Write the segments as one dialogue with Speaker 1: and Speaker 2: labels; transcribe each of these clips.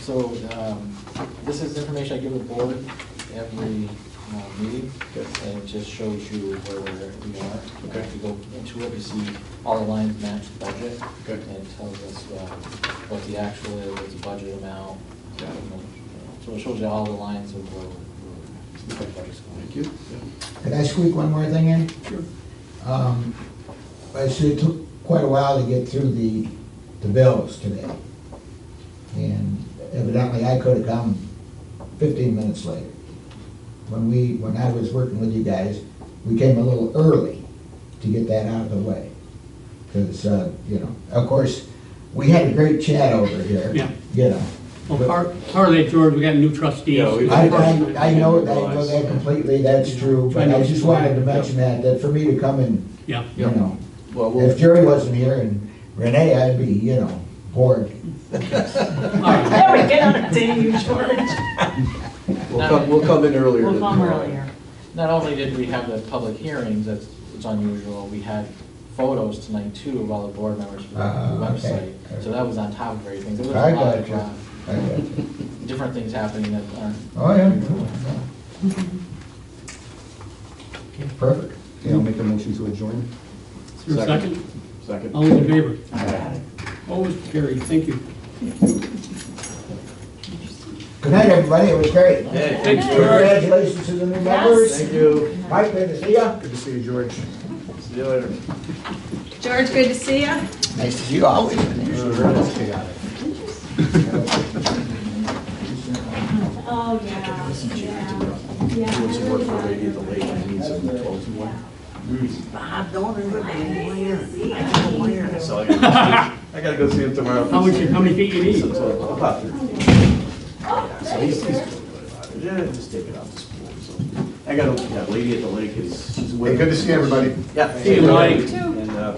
Speaker 1: So um, this is information I give the board every uh, meeting,
Speaker 2: Yes.
Speaker 1: and it just shows you where we're- we are.
Speaker 2: Okay.
Speaker 1: If you go into it, you see all the lines match the budget.
Speaker 2: Okay.
Speaker 1: And it tells us uh, what the actual is, what's the budget amount.
Speaker 2: Got it.
Speaker 1: you know, So it shows you all the lines of where we're, where the budget's going.
Speaker 2: Thank you.
Speaker 3: Could I squeak one more thing in?
Speaker 2: Sure.
Speaker 3: Um, I see it took quite a while to get through the, the bills today. And evidently I could have come fifteen minutes later. When we, when I was working with you guys, we came a little early to get that out of the way. Because, uh, you know, of course, we had a great chat over here.
Speaker 4: Yeah.
Speaker 3: You know.
Speaker 4: Well, par- partly, George, we got new trustees.
Speaker 2: Yeah, we-
Speaker 3: I, I, I know, I know that completely, that's true, but I just wanted to mention that, that for me to come and,
Speaker 4: Yeah,
Speaker 3: you know,
Speaker 2: Well,
Speaker 3: If Jerry wasn't here and Renee, I'd be, you know, bored.
Speaker 4: all right.
Speaker 5: There we go, dang you, George.
Speaker 2: we'll come, we'll come in earlier.
Speaker 5: We'll
Speaker 2: than
Speaker 5: come
Speaker 2: tomorrow.
Speaker 5: earlier.
Speaker 1: Not only did we have the public hearings, that's, it's unusual, we had photos tonight too of all the board members from the
Speaker 3: Ah,
Speaker 1: website.
Speaker 3: okay.
Speaker 1: So that was on top of everything. There was a
Speaker 3: I
Speaker 1: lot
Speaker 3: got
Speaker 1: of
Speaker 3: you.
Speaker 1: uh,
Speaker 3: I got you.
Speaker 1: different things happening that aren't.
Speaker 3: Oh, yeah. Perfect.
Speaker 6: Okay, I'll make a motion to adjourn.
Speaker 4: Is there a second?
Speaker 2: Second.
Speaker 4: All those in favor? Always carried, thank you.
Speaker 3: Good night, everybody, it was great.
Speaker 4: Thanks, George.
Speaker 3: Congratulations to the new members.
Speaker 2: Thank you.
Speaker 3: Mike, good to see ya.
Speaker 6: Good to see you, George.
Speaker 2: See you later.
Speaker 7: George, good to see you.
Speaker 3: Nice to see you always.
Speaker 7: Oh, yeah, yeah, yeah.
Speaker 2: Doing some work for a lady at the lake, and needs some clothes and what. So I gotta- I gotta go see him tomorrow.
Speaker 4: How much, how many feet you need?
Speaker 2: So, about thirty. So he's, he's
Speaker 7: Sure.
Speaker 2: feeling really about it. Yeah, just take it out to school, so. I got a, that lady at the lake is, she's way.
Speaker 6: Hey, good to see everybody.
Speaker 2: Yeah.
Speaker 4: See you, Mike.
Speaker 2: And, uh,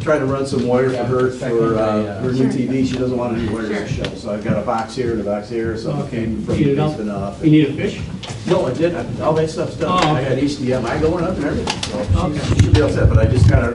Speaker 2: trying to run some wire for her, for, uh, her new TV, she doesn't want any wires to show, so I've got a box here and a box here, so. I
Speaker 4: Okay,
Speaker 2: came
Speaker 4: you
Speaker 2: from
Speaker 4: need it up?
Speaker 2: basement up.
Speaker 4: You need a fish?
Speaker 2: No, I did, I- all that stuff's done,
Speaker 4: Oh,
Speaker 2: I
Speaker 4: okay.
Speaker 2: got HDMI going up and everything, so
Speaker 4: Okay.
Speaker 2: she should be all set, but I just kinda